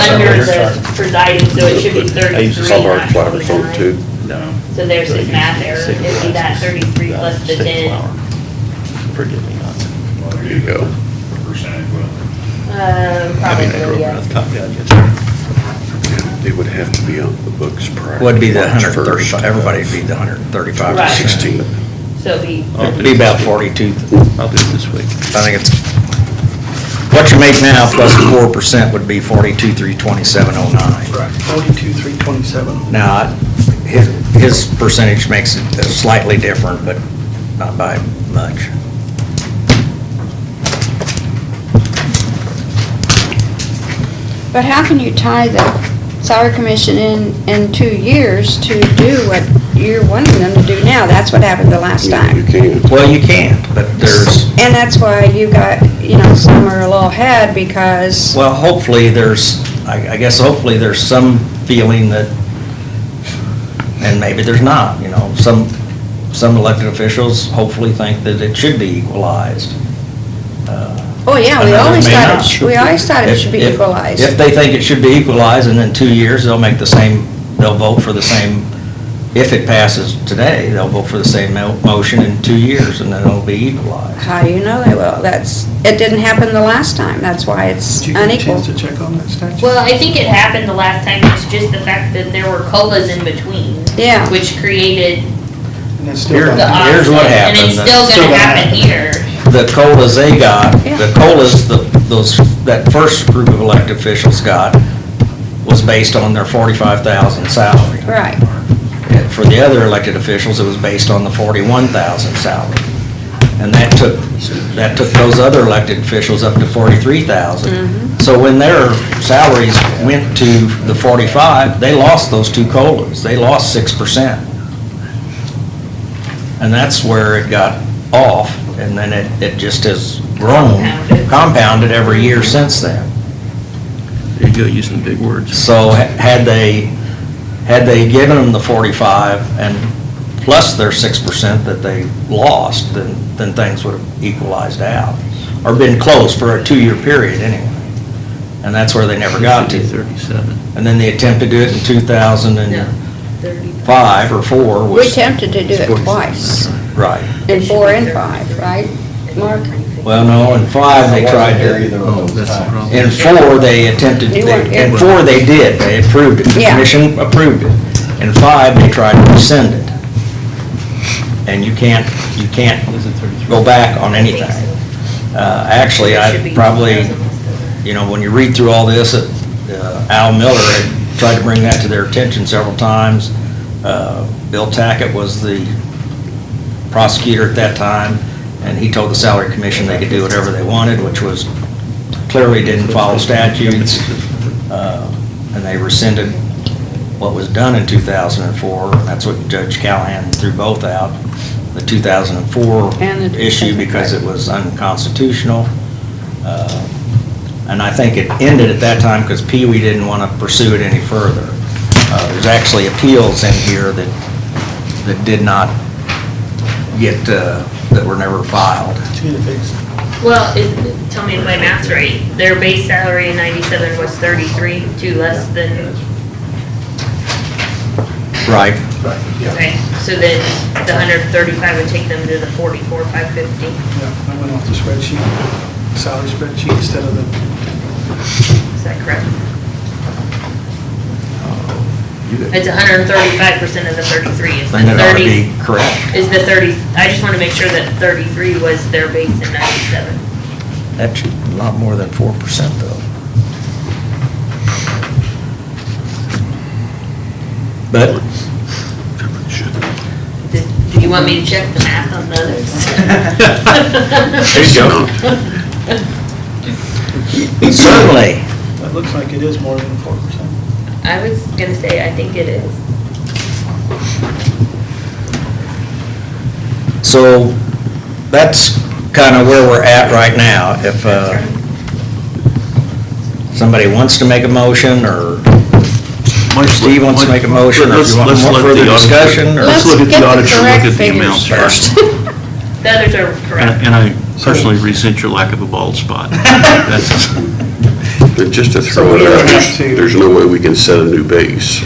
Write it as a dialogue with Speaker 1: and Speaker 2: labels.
Speaker 1: under
Speaker 2: Under
Speaker 1: the
Speaker 2: chart.
Speaker 1: presiding, so it should be
Speaker 3: I used
Speaker 1: 33.
Speaker 3: to solve our
Speaker 1: not
Speaker 3: flowers on
Speaker 1: 29.
Speaker 3: too.
Speaker 4: No.
Speaker 1: So there's his math error, it'd be that 33 plus the 10.
Speaker 4: Forgive me not.
Speaker 3: There you go.
Speaker 5: Percentage, well,
Speaker 1: Um,
Speaker 4: I mean, I
Speaker 1: Probably,
Speaker 4: drove around
Speaker 1: yes.
Speaker 4: the top, yeah, I guess.
Speaker 3: It would have to be on the books prior.
Speaker 2: Would be the
Speaker 3: to March
Speaker 2: hundred and thirty-five,
Speaker 3: 1st.
Speaker 2: everybody'd be the hundred and thirty-five
Speaker 1: Right.
Speaker 2: to sixty.
Speaker 3: 16.
Speaker 1: So it'd be,
Speaker 4: I'll do
Speaker 2: Be about
Speaker 4: this week.
Speaker 2: forty-two,
Speaker 4: I'll do it this week.
Speaker 2: I think it's, what you make now plus the four percent would be forty-two, three twenty-seven oh nine.
Speaker 6: Forty-two, three twenty-seven.
Speaker 2: Now, his, his percentage makes it slightly different, but not by much.
Speaker 7: But how can you tie the salary commission in, in two years to do what you're wanting them to do now? That's what happened the last
Speaker 3: You
Speaker 7: time.
Speaker 3: can't.
Speaker 2: Well, you can't, but there's,
Speaker 7: And that's why you got, you know, some are a little ahead because,
Speaker 2: Well, hopefully there's, I I guess hopefully there's some feeling that, and maybe there's not, you know, some, some elected officials hopefully think that it should be equalized. Uh,
Speaker 7: oh yeah, we
Speaker 2: Another
Speaker 7: always
Speaker 2: may
Speaker 7: thought, it
Speaker 2: not.
Speaker 7: sh- we always thought it
Speaker 2: If-
Speaker 7: should be
Speaker 2: if- If
Speaker 7: equalized.
Speaker 2: they think it should be equalized, and in two years, they'll make the same, they'll vote for the same, if it passes today, they'll vote for the same mo- motion in two years, and then it'll be equalized.
Speaker 7: How do you know they will? That's, it didn't happen the last time. That's why it's
Speaker 6: Did you get a
Speaker 7: unequal.
Speaker 6: chance to check on that statute?
Speaker 1: well, I think it happened the last time, it's just the fact that there were colas in between.
Speaker 7: Yeah.
Speaker 1: Which created
Speaker 6: And it's still
Speaker 2: Here-
Speaker 1: the
Speaker 6: not-
Speaker 2: Here's what
Speaker 1: offset, And
Speaker 2: happened.
Speaker 1: it's still
Speaker 6: Still
Speaker 1: gonna
Speaker 6: gonna
Speaker 1: happen
Speaker 6: happen.
Speaker 1: here.
Speaker 2: the colas they got, the
Speaker 7: Yeah.
Speaker 2: colas the, those, that first group of elected officials got was based on their forty-five thousand salary.
Speaker 7: Right.
Speaker 2: And For the other elected officials, it was based on the forty-one thousand salary. And that took, that took those other elected officials up to forty-three thousand. So when their salaries went to the forty-five, they lost those two colas. They lost six percent. And that's where it got off, and then it, it just has grown,
Speaker 1: Compounded.
Speaker 2: compounded every year since then.
Speaker 4: There you go, using big words.
Speaker 2: So ha- had they, had they given them the 45 and plus their 6% that they lost, then, then things would have equalized out, or been close for a two-year period anyway. And that's where they never got to.
Speaker 4: Thirty-seven.
Speaker 2: And then they attempted to do it in 2005 or 4
Speaker 7: We
Speaker 2: was,
Speaker 7: attempted to do it twice,
Speaker 2: right.
Speaker 7: in four and five, right, Mark?
Speaker 2: Well, no, in 5, they tried to.
Speaker 4: Oh, that's the problem.
Speaker 2: In four, they attempted,
Speaker 7: You weren't
Speaker 2: in
Speaker 7: here.
Speaker 2: four, they did, they approved it, the
Speaker 7: Yeah.
Speaker 2: commission approved it. In five, they tried to rescind it. And you can't, you can't
Speaker 4: Is it thirty-three?
Speaker 2: go back on anything. Uh, Actually,
Speaker 1: It should
Speaker 2: I
Speaker 1: be
Speaker 2: probably,
Speaker 1: 2000 instead of-
Speaker 2: you know, when you read through all this, uh, Al Miller had tried to bring that to their attention several times. Uh, Bill Tackett was the prosecutor at that time, and he told the salary commission they could do whatever they wanted, which was clearly didn't follow statutes. Uh, And they rescinded what was done in 2004, and that's what Judge Callahan threw both out, the 2004
Speaker 7: And the-
Speaker 2: issue because it was unconstitutional. Uh, And I think it ended at that time because Pee Wee didn't want to pursue it any further. Uh, There's actually appeals in here that, that did not get, uh, that were never filed.
Speaker 6: Did you get it fixed?
Speaker 1: Well, it, tell me if my math's right. Their base salary in ninety-seven was thirty-three, two less than,
Speaker 2: Right.
Speaker 1: okay. So then the hundred thirty-five would take them to the forty-four, five fifty.
Speaker 6: Yeah, I went off the spreadsheet, salary spreadsheet instead of the,
Speaker 1: Is that correct?
Speaker 2: You did.
Speaker 1: It's hundred thirty-five percent of the thirty-three. It's
Speaker 2: Then
Speaker 1: the
Speaker 2: it ought to be
Speaker 1: thirty,
Speaker 2: correct.
Speaker 1: is the thirty, I just wanna make sure that thirty-three was their base in ninety-seven.
Speaker 2: That should, a lot more than 4% though. But
Speaker 1: Did- Do you want me to check the math on the others?
Speaker 4: There you go.
Speaker 2: certainly,
Speaker 6: that looks like it is more than four percent.
Speaker 1: I was gonna say, I think it is.
Speaker 2: so that's kind of where we're at right now. If uh, somebody wants to make a motion or Steve wants to make a motion or if you want
Speaker 4: Let's-
Speaker 2: more
Speaker 4: let's let
Speaker 2: further
Speaker 4: the auditor-
Speaker 2: discussion or-
Speaker 4: Let's look at the
Speaker 7: Let's get the
Speaker 4: auditor,
Speaker 7: correct
Speaker 4: look at the
Speaker 7: figures
Speaker 4: amounts
Speaker 2: first.
Speaker 4: first.
Speaker 1: The others are correct.
Speaker 4: And and I personally resent your lack of a bald spot. That's
Speaker 3: Just to
Speaker 6: So
Speaker 3: throw
Speaker 6: we
Speaker 3: it out,
Speaker 6: have to-
Speaker 3: there's no way we can set a new base.